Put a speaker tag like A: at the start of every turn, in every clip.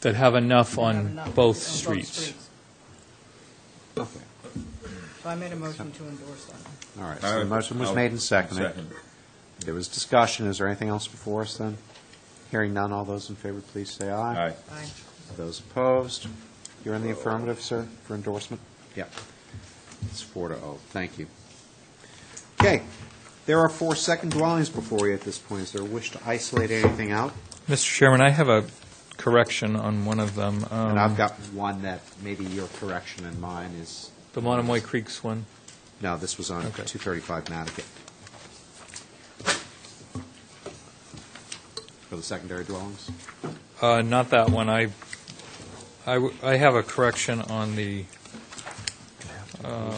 A: that have enough
B: have
A: on
B: enough on
A: both streets.
C: Okay,
B: So I made a motion to endorse that.
C: all right. So
D: All
C: the
D: right.
C: motion was
D: I'll
C: made and seconded.
D: second.
C: There was discussion. Is there anything else before us then? Hearing none, all those in favor, please say aye.
D: Aye.
B: Aye.
C: Those opposed? You're in the affirmative, sir, for endorsement? Yeah. It's four to oh. Thank you. Okay, there are four second dwellings before you at this point. Is there a wish to isolate anything out?
A: Mr. Chairman, I have a correction on one of them. um,
C: And I've got one that maybe your correction and mine is,
A: The Monomoy Creeks one.
C: no, this was on
A: Okay.
C: 235 Mattocket. For the secondary dwellings?
A: Uh, Not that one. I, I w- I have a correction on the, um,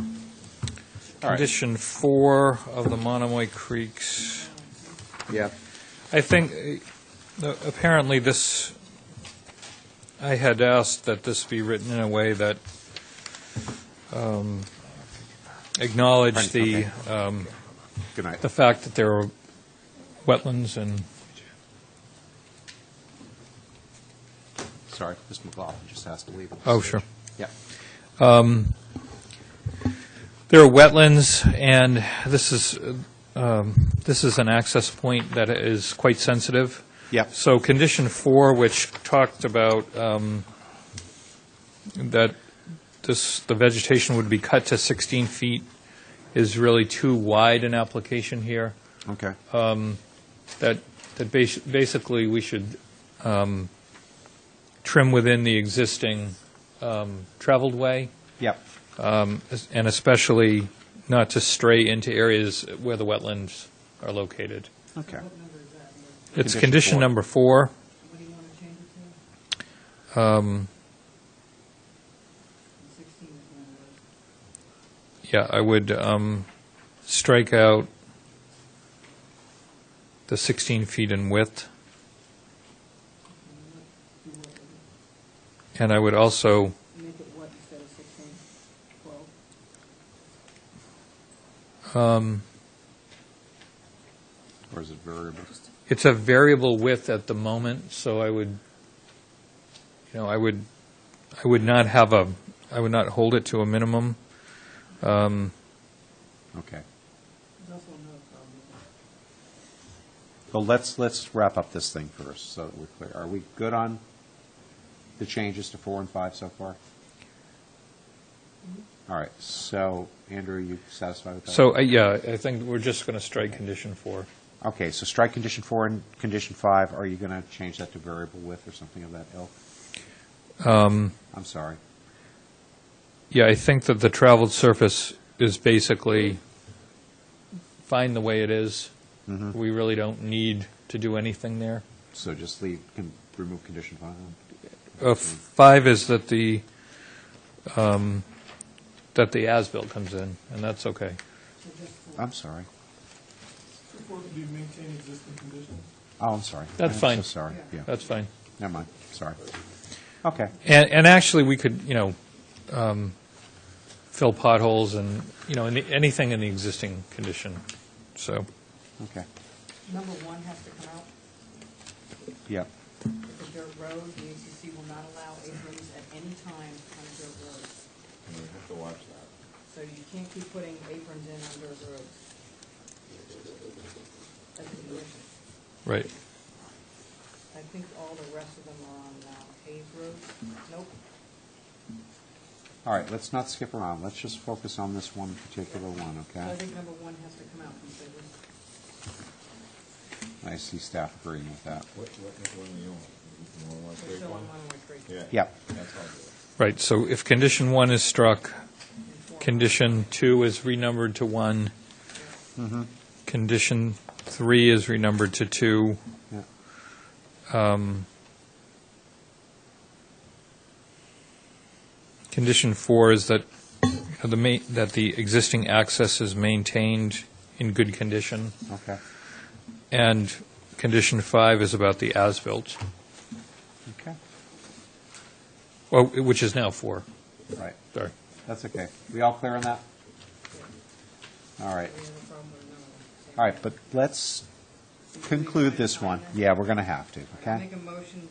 C: All right.
A: condition four of the Monomoy Creeks.
C: Yeah.
A: I think, uh, apparently this, I had asked that this be written in a way that um, acknowledged the, um,
C: Good night.
A: the fact that there are wetlands and,
C: Sorry, Mr. McLaughlin just has to leave.
A: oh, sure.
C: Yep.
A: Um, There are wetlands, and this is, um, this is an access point that is quite sensitive.
C: Yep.
A: So condition four, which talked about um, that this, the vegetation would be cut to 16 feet, is really too wide an application here,
C: Okay.
A: that, that basi- basically we should um, trim within the existing um, traveled way,
C: Yep.
A: um, es- and especially not to stray into areas where the wetlands are located.
C: Okay.
A: It's
C: Condition
A: condition
C: four.
A: number four.
B: What do you want to change it
A: Um,
B: to? Sixteen is one of those.
A: Yeah, I would um, strike out the 16 feet in width,
B: Do what with
A: and I would also,
B: it? Make it what instead of sixteen? Twelve?
A: um,
C: Or is it variable?
A: it's a variable width at the moment, so I would, you know, I would, I would not have a, I would not hold it to a minimum. Um,
C: Okay.
B: There's also another problem with that.
C: Well, let's, let's wrap up this thing first, so that we're clear. Are we good on the changes to four and five so far? All right, so, Andrew, are you satisfied with that?
A: So, uh, yeah, I think we're just going to strike condition four.
C: Okay, so strike condition four and condition five, are you going to change that to variable width or something of that ilk?
A: Um,
C: I'm sorry.
A: Yeah, I think that the traveled surface is basically fine the way it is.
C: Mhm.
A: We really don't need to do anything there.
C: So just leave, can remove condition five?
A: Uh, Five is that the, um, that the as-built comes in, and that's okay.
B: So just four.
C: I'm sorry.
E: Or do you maintain existing conditions?
C: Oh, I'm sorry.
A: That's
C: I'm
A: fine.
C: so sorry, yeah.
A: That's fine.
C: Never mind, sorry. Okay,
A: And, and actually, we could, you know, um, fill potholes and, you know, any- anything in the existing condition, so.
C: okay,
B: Number one has to come out.
C: yeah.
B: It's a dirt road. The ACC will not allow aprons at any time on a dirt road.
D: We have to watch that.
B: So you can't keep putting aprons in on dirt roads. That's a condition.
A: Right.
B: I think all the rest of them are on uh, paved roads. Nope.
C: All right, let's not skip around, let's just focus on this one particular one,
B: So I
C: okay?
B: think number one has to come out from favor.
C: I see staff agreeing with that.
D: What, what, which one do you want? You want one
B: We're
D: straight
B: still on
D: one?
B: one-way street.
D: Yeah.
C: Yep.
D: That's all good.
A: Right, so if condition one is struck,
B: And four.
A: Condition two is renumbered to one. Condition three is renumbered to two.
C: Yeah.
A: Um, Condition four is that, you know, the ma, that the existing access is maintained in good condition.
C: Okay,
A: And condition five is about the as-built,
C: okay,
A: well, which is now four,
C: All right,
A: sorry.
C: that's okay. We all clear on that? All right.
B: We have a problem with another one.
C: All right, but let's, conclude this one. Yeah, we're going to have to, okay?
B: Make a motion